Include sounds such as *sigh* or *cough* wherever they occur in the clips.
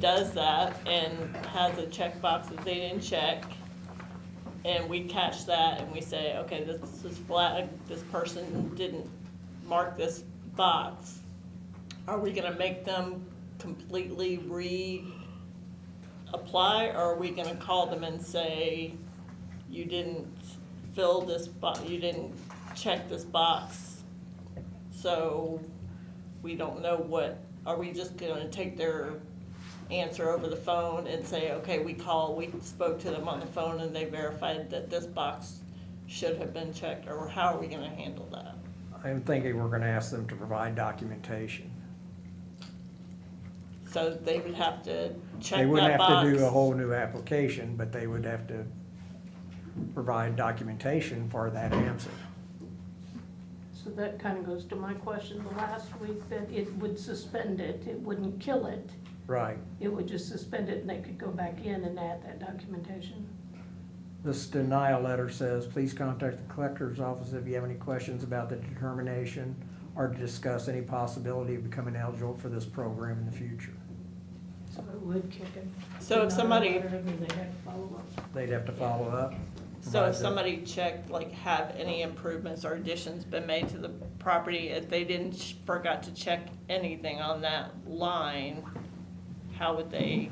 does that and has a checkbox that they didn't check, and we catch that and we say, okay, this is flag, this person didn't mark this box, are we gonna make them completely reapply, or are we gonna call them and say, you didn't fill this bo, you didn't check this box, so we don't know what, are we just gonna take their answer over the phone and say, okay, we call, we spoke to them on the phone and they verified that this box should have been checked, or how are we gonna handle that? I'm thinking we're gonna ask them to provide documentation. So they would have to check They wouldn't that have box. to do a whole new application, but they would have to provide documentation for that answer. So that kind of goes to my question the last week, that it would suspend it, it wouldn't kill it. Right. It would just suspend it and they could go back in and add that documentation. This denial letter says, please contact the collector's office if you have any questions about the determination or to discuss any possibility of becoming eligible for this program in the future. So it would kick it. So if somebody, They had follow up. They'd have to follow up. so provide if the- somebody checked, like, have any improvements or additions been made to the property, if they didn't, ch- forgot to check anything on that line, how would they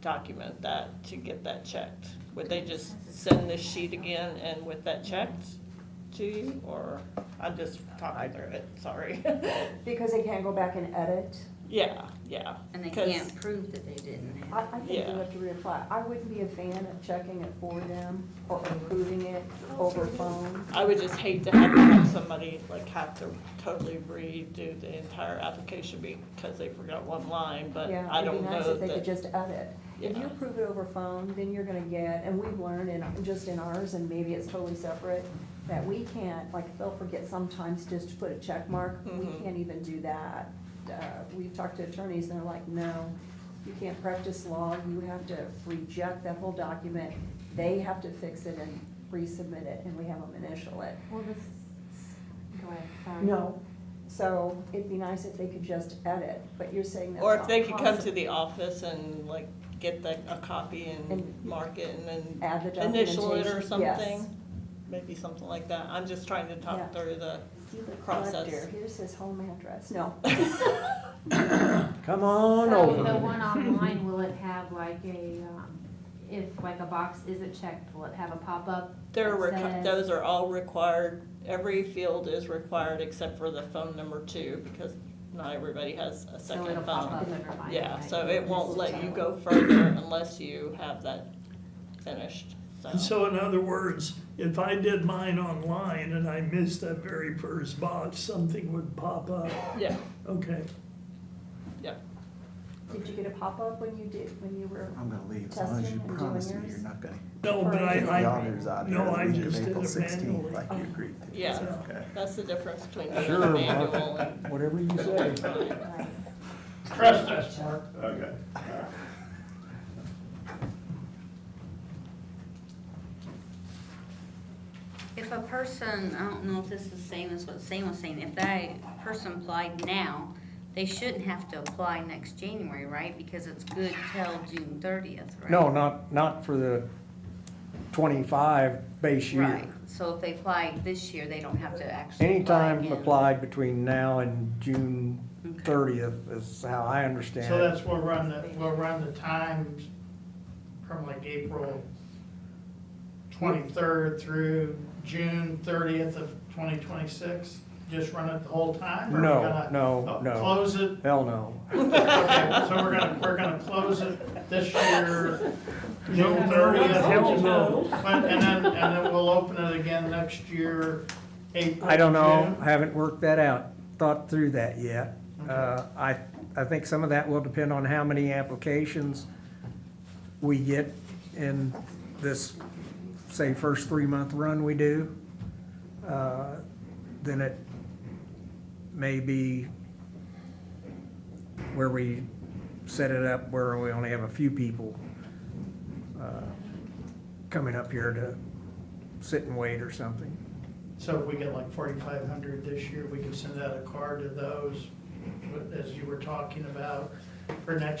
document that to get that checked? Would they just send this sheet again and with that checked to you, or, I'm just talking through it, sorry. *laughs* Because they can't go back and edit? Yeah, yeah. And they 'cause- can't prove that they didn't I, have. I think you Yeah. have to reapply. I wouldn't be a fan of checking it for them or approving it Oh, over phone. I would just hate to have to have somebody like have to totally redo the entire application because they forgot one line, but Yeah, I don't know It'd be nice if they could that. just edit. If you Yeah. approve it over phone, then you're gonna get, and we've learned in, just in ours, and maybe it's totally separate, that we can't, like, they'll forget sometimes just to put a check mark. We Mhm. can't even do that. Uh, We've talked to attorneys and they're like, no, you can't practice law. You have to reject that whole document. They have to fix it and resubmit it, and we have them initial it. Well, this, go ahead, sorry. No, so it'd be nice if they could just edit, but you're saying that's Or if not they could come to possible. the office and like get the, a copy and And- mark it and then Add the initial it or documentation, yes. something. Maybe something like that. I'm just trying to Yeah. talk through the, See the process. collector, here's his home address, no. Come on So the over. one online, will it have like a, um, if like a box isn't checked, will it have a pop-up? there that were, says- those are all required. Every field is required except for the phone number two because not everybody has a So second it'll phone. pop up and remind you. Yeah, that so you it won't missed let you out. go further unless you have that finished, And so. so in other words, if I did mine online and I missed that very first box, something would pop up. Yeah, Okay, Did you get a pop-up when you did, when you were, I'm gonna leave, as long as Testing you and doing promise me yours? you're not gonna no, but kick the I, auditors out I, here no, the I week of just did April it sixteenth, manually. like you agreed to. Yeah. Okay. that's the difference between Sure, doing a Mark. manual and. Whatever you say. Right. Trust us, Mark. Okay. If a person, I don't know if this is the same as what Sam was saying, if that person applied now, they shouldn't have to apply next January, right? Because it's good till June thirtieth, right? No, not, not for the twenty-five base year. Right, so if they apply this year, they don't have to actually. apply Anytime again. applied between now and June thirtieth is how I understand So it. that's, we'll run the, we'll run the times from like April twenty-third through June thirtieth of twenty twenty-six? Just run it the whole time? or we're No, gonna- no, Oh, no. *laughs* Close it, Hell no. okay, so we're gonna, we're gonna close it this year, June thirtieth. Hell no. And then, and then we'll open it again next year, April. I don't know, June. I haven't worked that out, thought through that yet. Uh, I, I think some of that will depend on how many applications we get in this, say, first three-month run we do. Uh, Then it may be where we set it up where we only have a few people uh, coming up here to sit and wait or something. So if we get like forty-five hundred this year, we can send out a card to those, as you were talking about, for next